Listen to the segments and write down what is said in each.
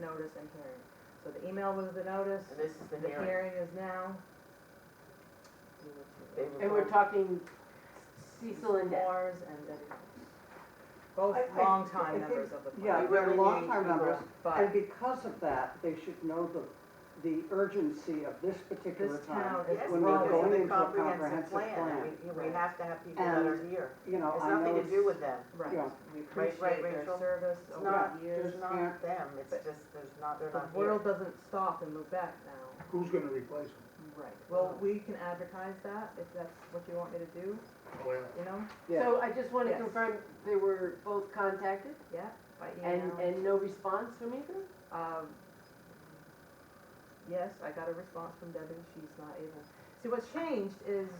notice and hearing. So the email was the notice, And this is the the hearing. hearing is now. They were And we're going, talking Cecil and Deb. Moore's and everything. Both I- I- I longtime think- members of the board. Yeah, We they're really need longtime people. members, and But because of that, they should know the, the urgency of this particular this time. town is yes, when we're because going of the into a comprehensive comprehensive plan, and plan. we, we have to have people that And- are here. You know, It's I know nothing to it's, do with them. Right, Yeah. we Right, appreciate right, their Rachel? service It's over not, the years. there's not them, it's But- just, there's not, they're The not here. world doesn't stop in Lubec now. Who's gonna replace him? Right. Well, we can advertise that if that's what you want me to do, Well, you know? yeah, So I just want to Yes. confirm, they were both contacted Yeah, by and, email. and no response from either? Um, yes, I got a response from Debbie, she's not able. See, what's changed is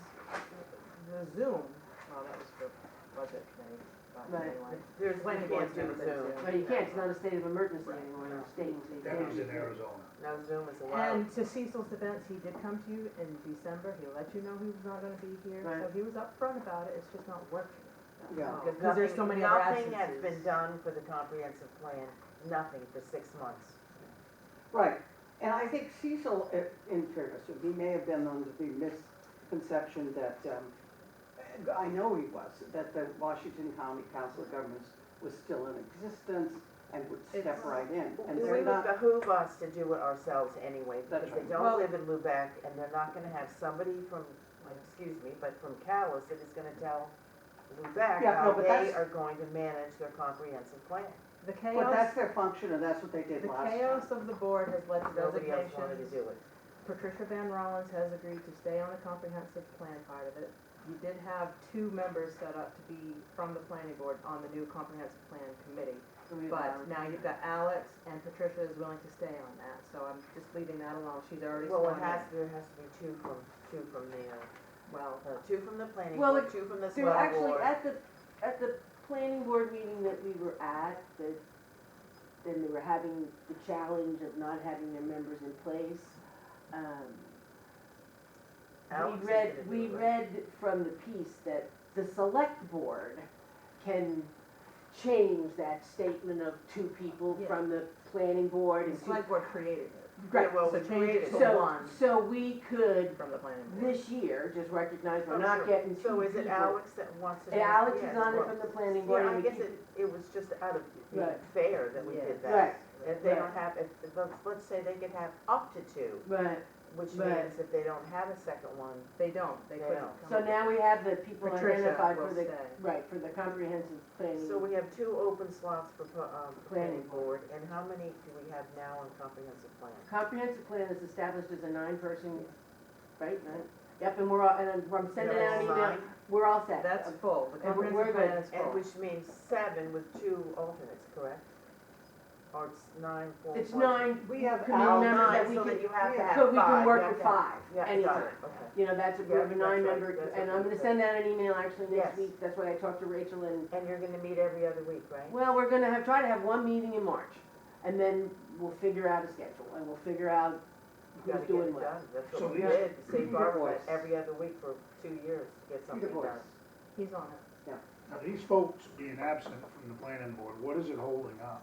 the Zoom, well, that was for budget committee, but Right. anyway. There's, When you it can't gets do to the Zoom. Zoom. But you can't, it's not a state of emergency Right. anymore in our state, so you that can't. was in Arizona. No Zoom is allowed. And to Cecil's defense, he did come to you in December, he let you know he was not gonna be here, so Right. he was upfront about it, it's just not working. yeah. Because there's so nothing- many other Nothing has been absences. done for the comprehensive plan, nothing for six months. Right, and I think Cecil, i- in fairness, he may have been under the misconception that, um, I know he was, that the Washington County Council of Governments was still in existence and would step It's- right in, and We they're would not, behoove us to do it ourselves anyway, That's because they right. Well- don't live in Lubec, and they're not gonna have somebody from, excuse me, but from Callis that is gonna tell Lubec Yeah, no, how but they that's- are going to manage their comprehensive plan. The but that's chaos, their function, and that's what they the did last time. chaos of the board has led to Nobody else wanted to resignations. do it. Patricia Van Rollins has agreed to stay on the comprehensive plan part of it. You did have two members set up to be from the planning board on the new comprehensive plan committee. So we- But now you've got Alex and Patricia is willing to stay on that, so I'm just leaving that alone. She's already Well, sworn it has, in. there has to be two from, two from the, uh, Well, uh, two from the planning Well, board, it- two from the They were swell actually board. at the, at the planning board meeting that we were at, that, then they were having the challenge of not having their members in place. Um, Alex We is read, gonna we do it. read from the piece that the select board can change that statement of two people Yeah. from the planning board the and two. select board created it. Right, well, So we change it created to it. so, one so we could, from the planning board. this year, just recognize Oh, we're not sure. getting two people. So is it Alex that wants to? do And it? Alex Yeah, is on it well, from the planning board. Yeah, I and we guess keep- it, it was just out of being Right. fair that we Yeah. did Right. that. If they Right. don't have, if, let's, let's say they could have up to two, Right, which Right. means if they don't have a second one, They don't, they They couldn't don't. come. so now we have the people Patricia identified will for the, stay. right, for the comprehensive planning. so we have two open slots for, pu- um, planning Planning board, and how many do we have now on comprehensive plan? Comprehensive plan is established as a nine-person, right, nine, yep, and we're all, and I'm- I'm sending There out an is email, nine, we're all set. That's full, the And we're- we're comprehensive plan good. is And full. which means seven with two alternates, correct? Or it's nine, four, It's one. nine, We have Committee Oh, Al, members nine, that we so can- that you have to yeah. have five. so we can work you with have to- five, Yeah, got anytime. it, okay. You know, that's, we Yeah, have a that's right, nine-member, that's and what I'm we gonna said. send out an email actually Yes. next week, that's what I talked to Rachel and, And you're gonna meet every other week, right? well, we're gonna have, try to have one meeting in March. And then we'll figure out a schedule, and we'll figure out You who's gotta get doing it what. done, that's So what we these- did, Save Your Barbara voice. every other week for two years to get something voice. done. He's on it. Now, these folks being absent from the planning board, what is it holding up?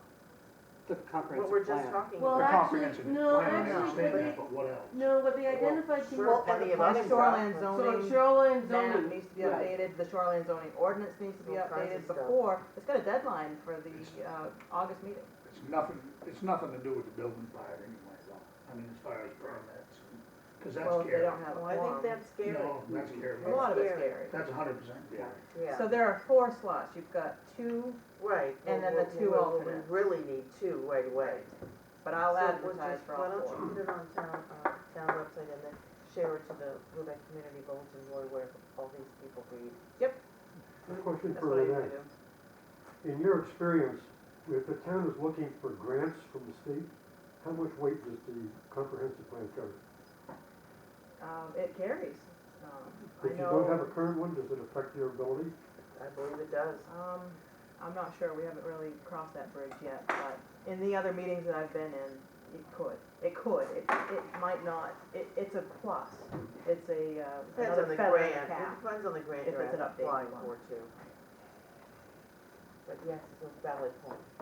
the What comprehensive we're just plan. talking Well, The about. actually, comprehensive no, actually, plan, I understand what that, they- but what else? No, what they Well, identified to. sure, was- plenty of Well, other shoreline stuff. So zoning. shoreline map zoning. needs to be right. updated, the shoreline zoning ordinance needs to be All kinds of updated stuff. before, it's got a deadline for the, uh, August meeting. It's nothing, it's nothing to do with the building fire anyway, though. I mean, as far as permits, because that's Well, if they scary. don't have Well, one. I think that's scary, No, that's scary. A lot of it's That's scary. That's a hundred percent scary. So yeah, there are four slots, you've got two, right. and then well, the we- two we- we alternates. Really need two right away. but I'll So we'll advertise just- for all Why don't four. you put it on town, uh, town website and then share it to the Lubec Community Bulletin Board where all these people read. A question That's what for I'm gonna Renee. do. In your experience, if the town is looking for grants from the state, how much weight does the comprehensive plan carry? Um, it carries, um, I If you don't have know, a current one, does it affect your ability? I believe it does. um, I'm not sure, we haven't really crossed that bridge yet, but in the other meetings that I've been in, it could, it could, it, it might not, it, it's a plus, it's a, uh, Depends on another the feather in the grant, cap. it depends on the grant If you're it's an updated applying one. for too. But yes, it's a valid point.